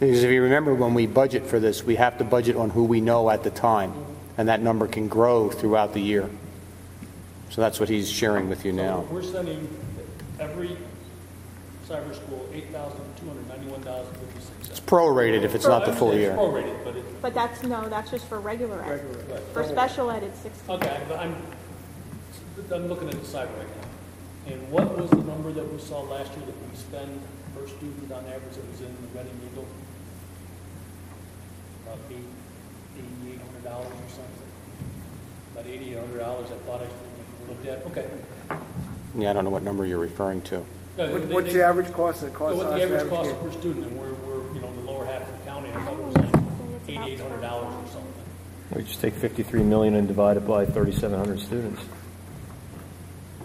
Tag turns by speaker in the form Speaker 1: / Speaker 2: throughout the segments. Speaker 1: Because if you remember, when we budget for this, we have to budget on who we know at the time, and that number can grow throughout the year. So that's what he's sharing with you now.
Speaker 2: We're sending every cyber school $8,291.56.
Speaker 1: Prorated if it's not the full
Speaker 2: It's
Speaker 1: year.
Speaker 2: prorated, but it,
Speaker 3: But that's, no, that's just for regular ed.
Speaker 2: Regular ed.
Speaker 4: Oh.
Speaker 3: For special ed, it's 60.
Speaker 2: okay, but I'm, I'm looking at the cyber right now. And what was the number that we saw last year that we spend per student on average that was in the Reading Eagle? About eight, eighty-eight hundred dollars or something? About eighty, a hundred dollars, I thought I looked at, okay.
Speaker 1: Yeah, I don't know what number you're referring to.
Speaker 2: No,
Speaker 4: What-
Speaker 2: they-
Speaker 4: What's
Speaker 2: they-
Speaker 4: the average cost that
Speaker 2: So
Speaker 4: costs
Speaker 2: what
Speaker 4: us
Speaker 2: the
Speaker 4: to
Speaker 2: average cost
Speaker 4: advocate?
Speaker 2: per student, and we're, we're, you know, the lower half of the county, I thought it was like eighty-eight hundred dollars or something.
Speaker 5: We just take 53 million and divide it by 3,700 students.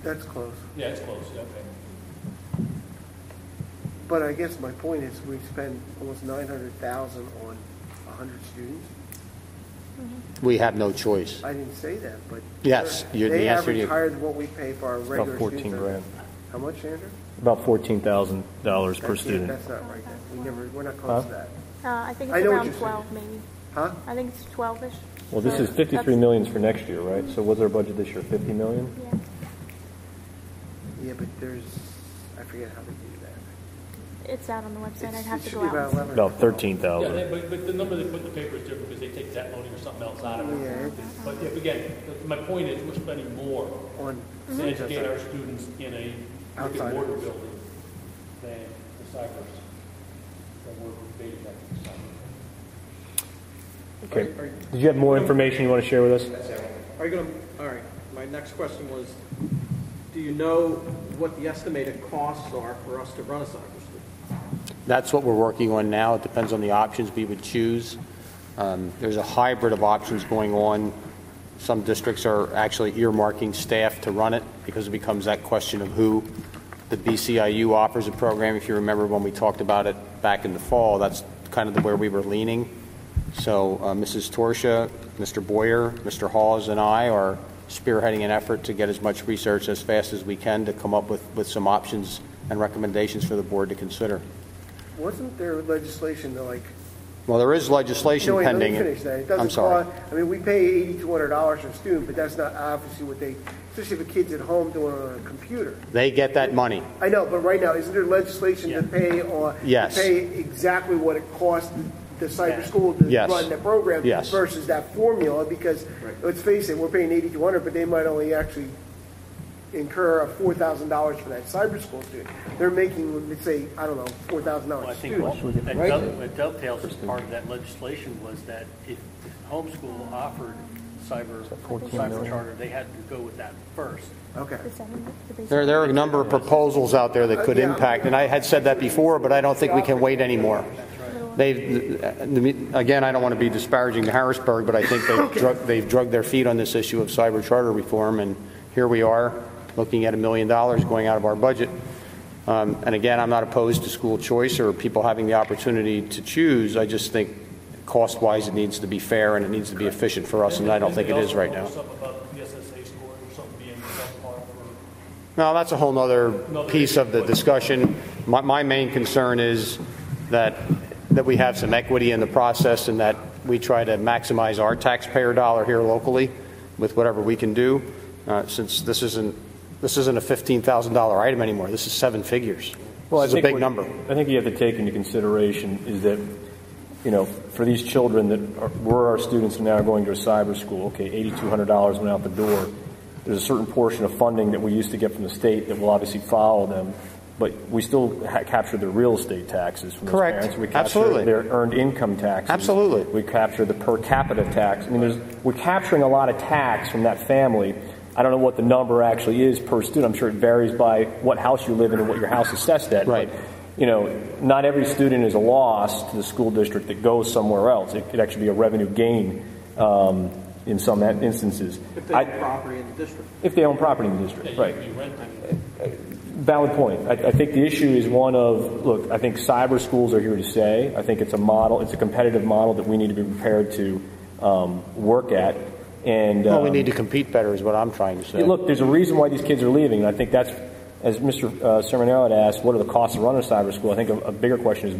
Speaker 4: That's close.
Speaker 2: Yeah, it's close, yeah, okay.
Speaker 4: But I guess my point is, we spend almost nine hundred thousand on hundred students.
Speaker 1: We have no choice.
Speaker 4: I didn't say that, but.
Speaker 1: Yes, you- the
Speaker 4: They
Speaker 1: answer
Speaker 4: average
Speaker 1: you-
Speaker 4: higher than what we pay for our
Speaker 5: About
Speaker 4: regular students.
Speaker 5: 14 grand,
Speaker 4: How much, Andrew?
Speaker 5: about $14,000 per
Speaker 4: That's-
Speaker 5: student.
Speaker 4: That's not right, That- we never, we're not close to
Speaker 5: Huh?
Speaker 4: that.
Speaker 3: Uh, I think
Speaker 4: I
Speaker 3: it's
Speaker 4: know what
Speaker 3: around
Speaker 4: you're saying.
Speaker 3: 12, maybe.
Speaker 4: Huh?
Speaker 3: I think it's 12-ish.
Speaker 5: Well, this is 53 millions for next year, right? So what's our budget this year, 50 million?
Speaker 3: Yeah.
Speaker 4: Yeah, but there's, I forget how they do that.
Speaker 3: It's out on the website. I'd
Speaker 4: It's-
Speaker 3: have
Speaker 4: It
Speaker 3: to
Speaker 4: should
Speaker 3: go
Speaker 4: be
Speaker 3: out. and
Speaker 4: about
Speaker 3: see.
Speaker 4: eleven.
Speaker 5: About
Speaker 2: Yeah,
Speaker 5: 13,000.
Speaker 2: they- but, but the number they put in the paper is different, because they take that money or something else out of
Speaker 4: Yeah.
Speaker 2: it. But yeah, again, my point is, we're spending more
Speaker 4: On.
Speaker 2: to educate our students in a brick
Speaker 4: Mm-hmm. Outside.
Speaker 2: and mortar building than the cybers, than we're debating that for cyber.
Speaker 5: Okay. Did you have more information you want to share with us?
Speaker 6: Are you going to, all right, my next question was, do you know what the estimated costs are for us to run a cyber school?
Speaker 1: That's what we're working on now. It depends on the options we would choose. Um, There's a hybrid of options going on. Some districts are actually earmarking staff to run it because it becomes that question of who. The BCIU offers a program. If you remember when we talked about it back in the fall, that's kind of the- where we were leaning. So uh, Mrs. Torsia, Mr. Boyer, Mr. Hawes, and I are spearheading an effort to get as much research as fast as we can to come up with, with some options and recommendations for the board to consider.
Speaker 4: Wasn't there legislation to like
Speaker 1: Well, there is legislation
Speaker 4: No, wait, let me
Speaker 1: pending.
Speaker 4: finish that. It
Speaker 1: I'm
Speaker 4: doesn't
Speaker 1: sorry.
Speaker 4: cost- I mean, we pay eighty-two hundred dollars for a student, but that's not obviously what they, especially if a kid's at home doing it on a computer.
Speaker 1: They get that money.
Speaker 4: I know, but right now, isn't there legislation to pay on? to
Speaker 1: Yes.
Speaker 4: Pay exactly what it costs the cyber school to
Speaker 1: Yes.
Speaker 4: run the program?
Speaker 1: Yes.
Speaker 4: Versus that formula, because, let's face it, we're paying eighty-two hundred, but they might only actually incur a four thousand dollars for that cyber school student. They're making, let's say, I don't know, four thousand
Speaker 7: Well, I
Speaker 4: dollars a
Speaker 7: think what
Speaker 4: student.
Speaker 7: that
Speaker 4: right?
Speaker 7: dove- what dovetails as part of that legislation was that if if homeschool offered cyber, cyber charter, they had to go with that first.
Speaker 4: Okay.
Speaker 3: The seven- the basic-
Speaker 1: There, there are a number of proposals out there that could impact, and I had said that before, but I don't think we can wait anymore. They've, again, I don't want to be disparaging to Harrisburg, but I think they've drug, they've drugged their feet on this issue of cyber charter reform, and here we are, looking at a million dollars going out of our budget. Um, And again, I'm not opposed to school choice or people having the opportunity to choose, I just think cost-wise, it needs to be fair and it needs to be efficient for us, and I don't think it is right now.
Speaker 2: Something about the SSA score or something being subpar for
Speaker 1: No, that's a whole nother piece of the discussion. My, my main concern is that, that we have some equity in the process and that we try to maximize our taxpayer dollar here locally with whatever we can do, uh, since this isn't, this isn't a $15,000 item anymore. This is seven figures. This is a big number.
Speaker 5: I think you have to take into consideration is that, you know, for these children that are, were our students and now are going to a cyber school, okay, $8,200 went out the door. There's a certain portion of funding that we used to get from the state that will obviously follow them, but we still ha- capture their real estate taxes from
Speaker 1: Correct.
Speaker 5: those parents. We capture
Speaker 1: Absolutely.
Speaker 5: their earned income taxes.
Speaker 1: Absolutely.
Speaker 5: We capture the per capita tax. I mean, there's, we're capturing a lot of tax from that family. I don't know what the number actually is per student. I'm sure it varies by what house you live in and what your house is assessed at.
Speaker 1: Right.
Speaker 5: But, you know, not every student is a loss to the school district that goes somewhere else. It could actually be a revenue gain um, in some instances.
Speaker 6: If they
Speaker 5: I-
Speaker 6: have property in the district?
Speaker 5: if they own property in the district, right. Uh, Valid point. I, I think the issue is one of, look, I think cyber schools are here to stay. I think it's a model, it's a competitive model that we need to be prepared to um, work at. And
Speaker 1: Well, we
Speaker 5: um,
Speaker 1: need to compete better is what I'm trying to
Speaker 5: yeah,
Speaker 1: say.
Speaker 5: Look, there's a reason why these kids are leaving, and I think that's, as Mr. Uh, Sermonaro had asked, what are the costs of running a cyber school? I think a, a bigger question is